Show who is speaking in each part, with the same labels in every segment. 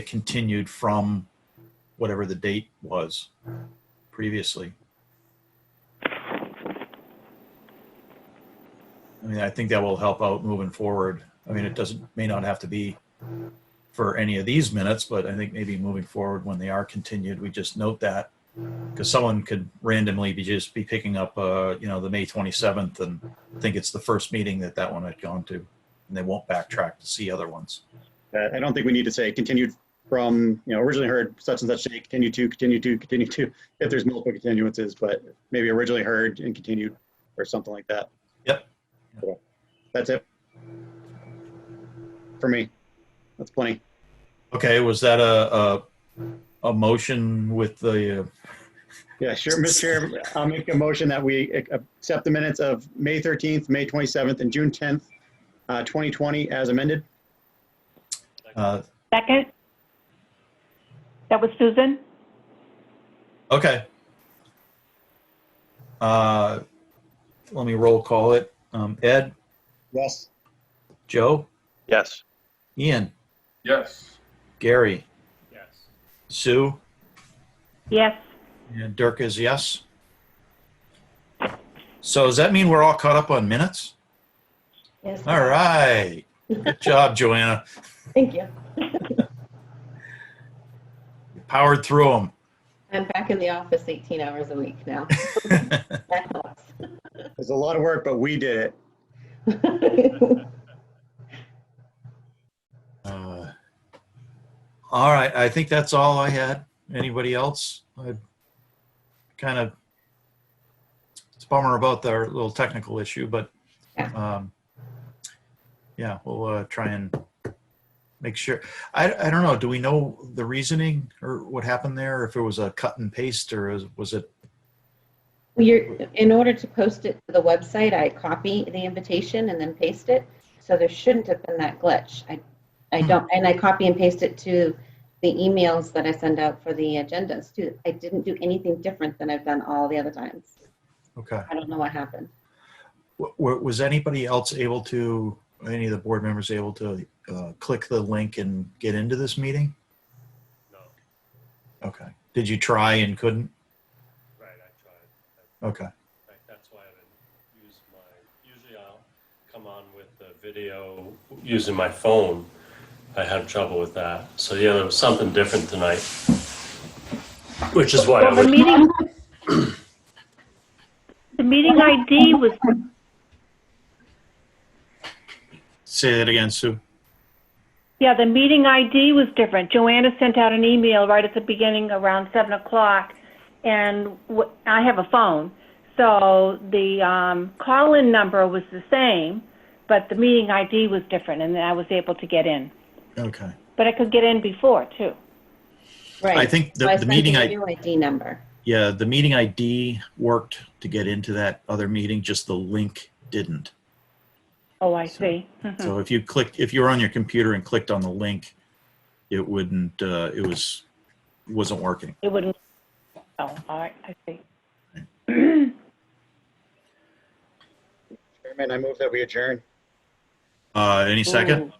Speaker 1: it continued from whatever the date was previously. I mean, I think that will help out moving forward. I mean, it doesn't, may not have to be for any of these minutes, but I think maybe moving forward when they are continued, we just note that. Because someone could randomly be just be picking up, uh, you know, the May 27th and think it's the first meeting that that one had gone to. And they won't backtrack to see other ones.
Speaker 2: Uh, I don't think we need to say continued from, you know, originally heard such and such date, continue to, continue to, continue to, if there's multiple continuances, but maybe originally heard and continued or something like that.
Speaker 1: Yep.
Speaker 2: Cool. That's it. For me, that's plenty.
Speaker 1: Okay, was that a, a, a motion with the, uh,
Speaker 2: Yeah, sure, Mr. Chair, I'll make a motion that we ac- accept the minutes of May 13th, May 27th, and June 10th, uh, 2020 as amended.
Speaker 1: uh,
Speaker 3: Second? That was Susan?
Speaker 1: okay. Uh, let me roll call it. Um, Ed,
Speaker 2: Yes.
Speaker 1: Joe,
Speaker 4: Yes.
Speaker 1: Ian,
Speaker 5: Yes.
Speaker 1: Gary,
Speaker 5: Yes.
Speaker 1: Sue,
Speaker 3: Yes.
Speaker 1: and Dirk is yes. So does that mean we're all caught up on minutes?
Speaker 6: Yes.
Speaker 1: All right. Good job, Joanna.
Speaker 6: Thank you.
Speaker 1: You Powered through
Speaker 6: I'm back in the office 18 hours a week now.
Speaker 1: them.
Speaker 6: That helps.
Speaker 2: It's a lot of work, but we did it.
Speaker 1: Uh, All right, I think that's all I had. Anybody else? I kind of, it's a bummer about their little technical issue, but
Speaker 6: Yeah.
Speaker 1: um, yeah, we'll uh, try and make sure. I, I don't know, do we know the reasoning or what happened there? If it was a cut and paste or is- was it,
Speaker 6: You're, in order to post it to the website, I copy the invitation and then paste it. So there shouldn't have been that glitch. I,
Speaker 1: Hmm.
Speaker 6: I don't, and I copy and paste it to the emails that I send out for the agendas too. I didn't do anything different than I've done all the other times.
Speaker 1: okay.
Speaker 6: I don't know what happened.
Speaker 1: W- w- Was anybody else able to, any of the board members able to uh, click the link and get into this meeting?
Speaker 5: No.
Speaker 1: Okay. Did you try and couldn't?
Speaker 5: Right. I tried. I-
Speaker 1: Okay.
Speaker 5: I- That's why I didn't use my. Usually I'll come on with the video using my phone. I had trouble with that. So yeah, there was something different tonight, which is why I
Speaker 3: Well, the
Speaker 5: was.
Speaker 3: meeting, the meeting ID was,
Speaker 1: Say that again, Sue.
Speaker 3: yeah, the meeting ID was different. Joanna sent out an email right at the beginning around 7 o'clock, and wh- I have a phone. So the um, call-in number was the same, but the meeting ID was different, and I was able to get in.
Speaker 1: Okay.
Speaker 3: But I could get in before, too.
Speaker 6: Right.
Speaker 1: I think
Speaker 6: So I
Speaker 1: the, the
Speaker 6: sent
Speaker 1: meeting,
Speaker 6: you a
Speaker 1: I,
Speaker 6: new ID number.
Speaker 1: yeah, the meeting ID worked to get into that other meeting, just the link didn't.
Speaker 3: Oh, I
Speaker 1: So-
Speaker 3: see.
Speaker 6: Hmm.
Speaker 3: Mhm.
Speaker 1: So if you clicked, if you were on your computer and clicked on the link, it wouldn't, uh, it was, wasn't working.
Speaker 3: It wouldn't, oh, all right, I see.
Speaker 2: Chairman, I move that we adjourn.
Speaker 1: Uh, any second?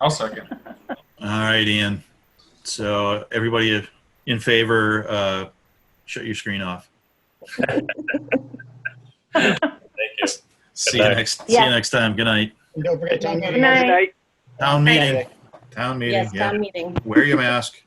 Speaker 5: I'll second.
Speaker 1: All right, Ian. So everybody in favor, uh, shut your screen off.
Speaker 5: Thank you.
Speaker 1: See you
Speaker 5: night.
Speaker 1: next, see you
Speaker 3: Yeah.
Speaker 1: next time. Good night.
Speaker 2: And don't forget town meeting.
Speaker 3: Good night.
Speaker 1: Town
Speaker 6: Good night.
Speaker 1: meeting, town meeting,
Speaker 6: Yes,
Speaker 1: yeah.
Speaker 6: town meeting.
Speaker 1: Wear your mask.